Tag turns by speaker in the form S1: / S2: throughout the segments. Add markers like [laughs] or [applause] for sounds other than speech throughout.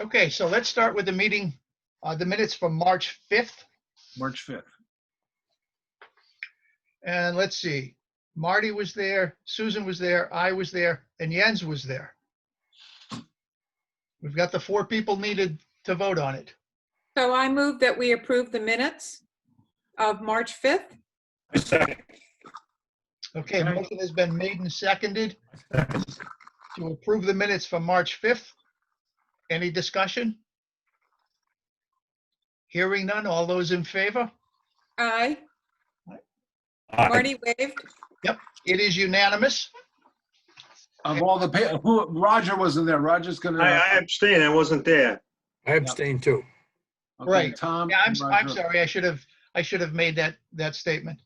S1: Okay, so let's start with the meeting, uh, the minutes from March 5th.
S2: March 5th.
S1: And let's see, Marty was there, Susan was there, I was there, and Jens was there. We've got the four people needed to vote on it.
S3: So I move that we approve the minutes of March 5th.
S4: I second.
S1: Okay,
S2: Okay.
S1: motion has been made and seconded to approve the minutes from March 5th. Any discussion? Hearing none, all those in favor?
S3: Aye.
S4: Aye.
S3: Marty waved.
S1: It is unanimous.
S2: Of all the, pa- who, Roger wasn't there. Roger's gonna.
S5: I, I abstain, I wasn't there.
S6: I abstain too.
S2: Okay,
S1: Right.
S2: Tom.
S1: Yeah, I'm,
S2: and
S1: I'm
S2: Roger.
S1: sorry, I should have, I should have made that, that statement.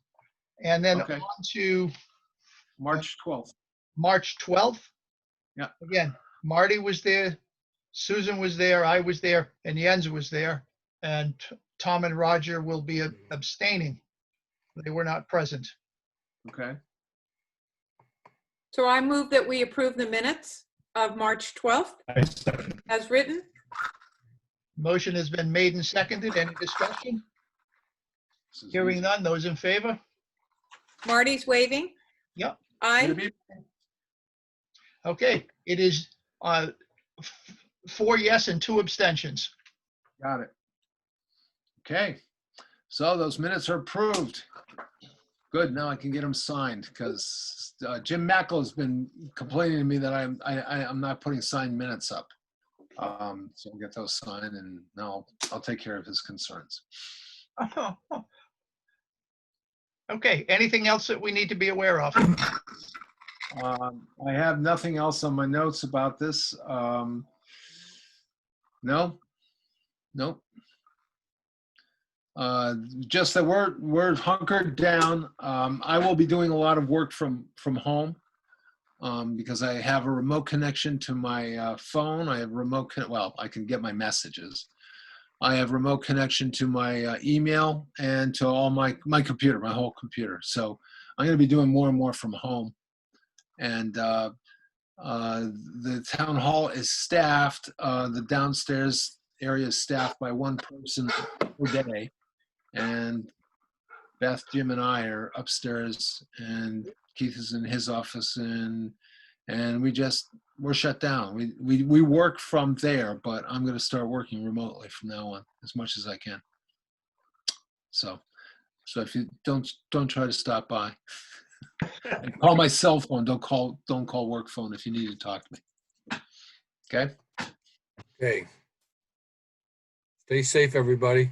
S1: And then
S2: Okay.
S1: on to
S2: March 12th.
S1: March 12th.
S2: Yeah.
S1: Again, Marty was there, Susan was there, I was there, and Jens was there. And Tom and Roger will be abstaining. They were not present.
S2: Okay.
S3: So I move that we approve the minutes of March 12th
S4: I second.
S3: as written.
S1: Motion has been made and seconded. Any discussion?
S2: This is
S1: Hearing
S2: easy.
S1: none. Those in favor?
S3: Marty's waving.
S1: Yep.
S3: Aye.
S2: Maybe-
S1: Okay, it is uh, f- four yes and two abstentions.
S2: Got it. Okay. So those minutes are approved. Good. Now I can get them signed because Jim Mackle's been complaining to me that I'm, I, I- I'm not putting signed minutes up. Um, So I'll get those signed and now I'll take care of his concerns.
S1: [laughs] Okay, anything else that we need to be aware
S2: [laughs]
S1: of?
S2: Um, I have nothing else on my notes about this. Um, no, nope. Uh, just that we're we're hunkered down. Um, I will be doing a lot of work from from home um, because I have a remote connection to my uh, phone. I have remote con- well, I can get my messages. I have remote connection to my uh, email and to all my my computer, my whole computer. So I'm going to be doing more and more from home and uh, uh, the town hall is staffed. Uh, the downstairs area is staffed by one person per day, and Beth, Jim, and I are upstairs, and Keith is in his office, and and we just we're shut down. We we we work from there, but I'm going to start working remotely from now on as much as I can. So. So if you don't don't try to stop by, and call my cell phone. Don't call, don't call work phone if you need to talk to me. Okay?
S6: Okay. Stay safe, everybody.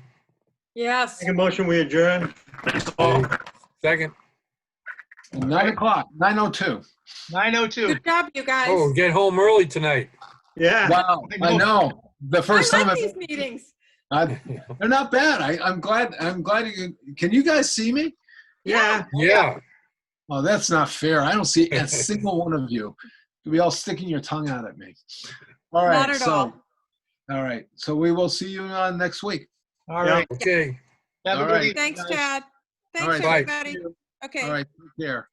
S3: Yes.
S5: Make a motion, we adjourn.
S6: Second.
S2: Nine o'clock, nine oh two.
S1: 9:02.
S3: Good job, you guys.
S6: Oh, get home early tonight.
S5: Yeah,
S2: Wow, I know. The
S3: I
S2: first time,
S3: like
S2: I've-
S3: these meetings.
S2: I- they're not bad. I, I'm glad, I'm glad you, can you guys see me?
S5: yeah.
S6: Yeah.
S2: Oh, that's not fair. I don't see a single one of you. You'll be all sticking your tongue out at me. All
S3: Not
S2: right,
S3: at
S2: so,
S3: all.
S2: all right. So we will see you on next week.
S1: All right.
S6: Okay.
S1: Have a
S2: All
S1: good
S2: right.
S1: evening,
S3: Thanks,
S1: guys.
S3: Chad. Thanks,
S2: right,
S6: bye.
S3: everybody.
S2: All
S3: Okay.
S2: right, take care.